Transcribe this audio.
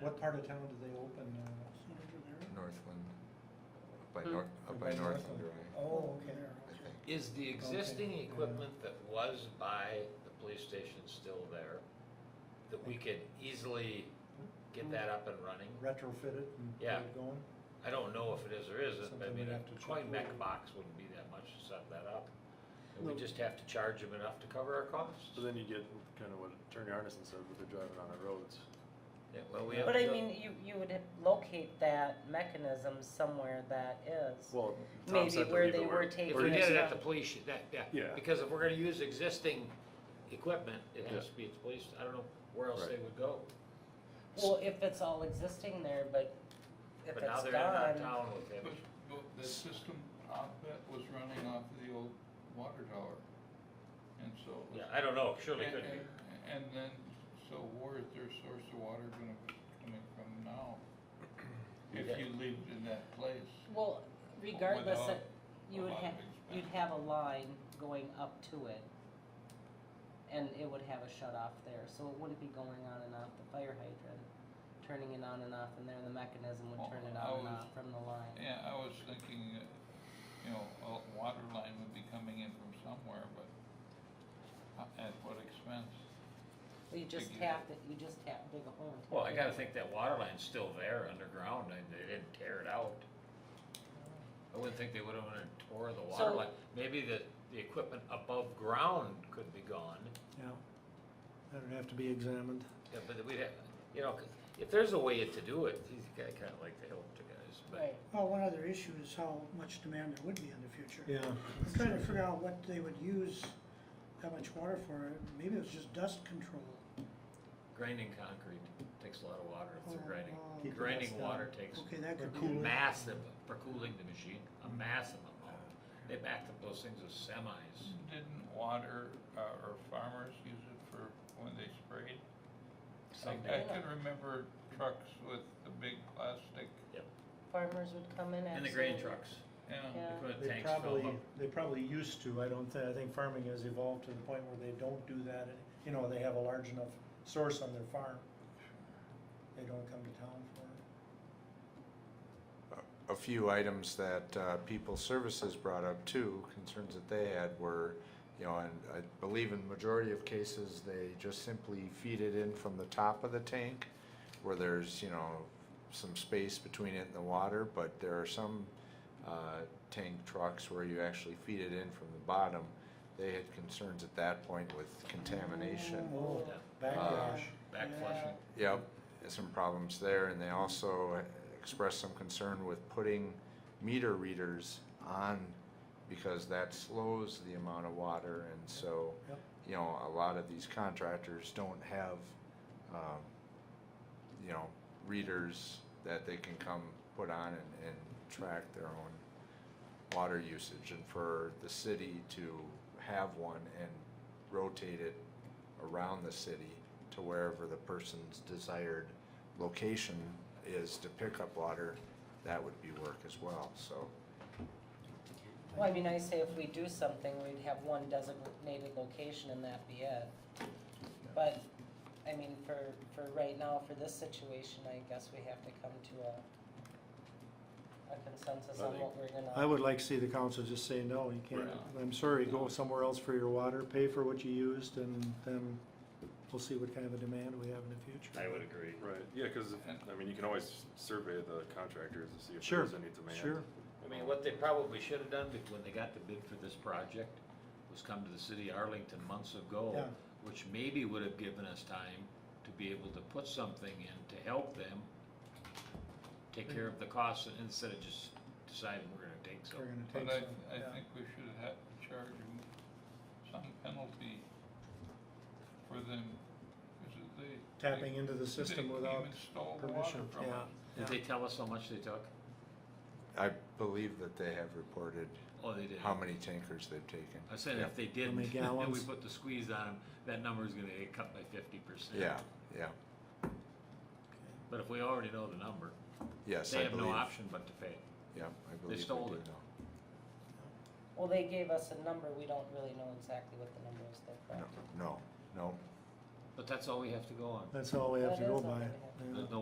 What part of town do they open? uh, Northland, up by Hmm. North, up by Northland Drive, Oh, okay. I think. Is the existing equipment that was by the police station still there? That we could easily get that up and running? Retrofitted and get Yeah. it going? I don't know if it is or isn't, but I Something mean, we'd have to check coin mech over. box wouldn't be that much to set that up. And we No. just have to charge them enough to cover our costs. But then you get kind of what Attorney Arneson said, with the driving on the roads. Yeah, well, we have But I to- mean, you, you would locate that mechanism somewhere that is. Well, Tom Maybe said to where leave they it were where. taking If where we it it is. did it yeah. at the police, sh- that, yeah. Yeah. Because if we're gonna use existing equipment, it has Yeah. to be at the police, I don't know where else they Right. would go. Well, if it's all existing there, but if But now it's they're in our gone, town with it. But, but the system outlet was running off of the old water tower, and so. it was- Yeah, I don't know, surely and- could be. uh, and- And then, so where is their source of water gonna be coming from now? Yeah. If you lived in that place. well, regardless, Without it- you a would lot have, of you'd expense. have a line going up to it. And it would have a shut off there, so it wouldn't be going on and off the fire hydrant, turning it on and off, and there the mechanism would turn it on and Oh, I was- off from the line. Yeah, I was thinking, uh, you know, a water line would be coming in from somewhere, but ho- at what expense? You just Figure. tap it, you just tap, dig a hole. and tap Well, I it. gotta think that water line's still there underground, and they didn't tear it out. I wouldn't think they would've wanna tore the water So- line, maybe the, the equipment above ground could be gone, Yeah. That'd have to be examined. yeah, but we'd have, you know, if there's a way to do it, geez, I kinda like to help the guys, but. Right. Well, one other issue is how much demand there would be in the future. Yeah. I'm trying to figure out what they would use that much water for. Maybe it was just dust control. Grinding concrete takes a lot of water if they're Oh, grinding, Mm-hmm. wow. Keep the grinding dust down. water takes Okay, that Or could be. cooling. massive, for cooling the machine, a massive amount. They backed up those things with semis. Didn't water, uh, or farmers use it for when they sprayed? I, Some I did. can remember trucks with the big plastic, Farmers would come in. And the grain absolutely. trucks, yeah, Yeah. they put They tanks filled probably, up. they probably used to, I don't think, I think farming has evolved to the point where they don't do that. You know, they have a large enough source on their farm. They don't come to town for it. a few items that uh, People Services brought up too, concerns that they had were, you know, and I believe in majority of cases, they just simply feed it in from the top of the tank where there's, you know, some space between it and the water, but there are some uh, tank trucks where you actually feed it in from the bottom. They had concerns at that point with contamination. Uh, Oh, Yeah. backlash. Back Yeah. flushing. Yep, there's some problems there, and they also expressed some concern with putting meter readers on because that slows the amount of water, and so, Yep. you know, a lot of these contractors don't have, um, you know, readers that they can come put on and, and track their own water usage, and for the city to have one and rotate it around the city to wherever the person's desired location is to pick up water, that would be work as well, so. Well, I mean, I say if we do something, we'd have one designated location and that be it. But, I mean, for, for right now, for this situation, I guess we have to come to a, a consensus I on think- what we're gonna. I would like to see the council just say, no, you can't, I'm sorry, go somewhere else for your water, pay for what you used, and then we'll see what kind of a demand we have in the future. agree. Right, yeah, cause, I mean, you can always survey the contractors to see if Sure, there's any demand. sure. I mean, what they probably should have done bec- when they got the bid for this project was come to the city of Arlington months ago, Yeah. which maybe would have given us time to be able to put something in to help them take care of the costs instead of just deciding we're gonna take We're something. but gonna I, take some, I yeah. think we should have charged them some penalty for them, is it they? Tapping into the they- system they without even stole the water permission, from us. yeah. Did they tell us how much they took? I believe that they have reported Oh, they did. how many tankers they've taken. I said Yeah. if they How didn't, many and we gallons? put the squeeze on them, that number's gonna get cut by fifty percent. Yeah, yeah, But if we already know the number, yes, they I have believe. no option but to pay. Yeah, I believe we stole do it. know. Well, they gave us a number, we don't really know exactly what the number is, though, correct? No, no, no. But that's all we have to go on. That's all we have to That go is all by. we have. yeah. There's no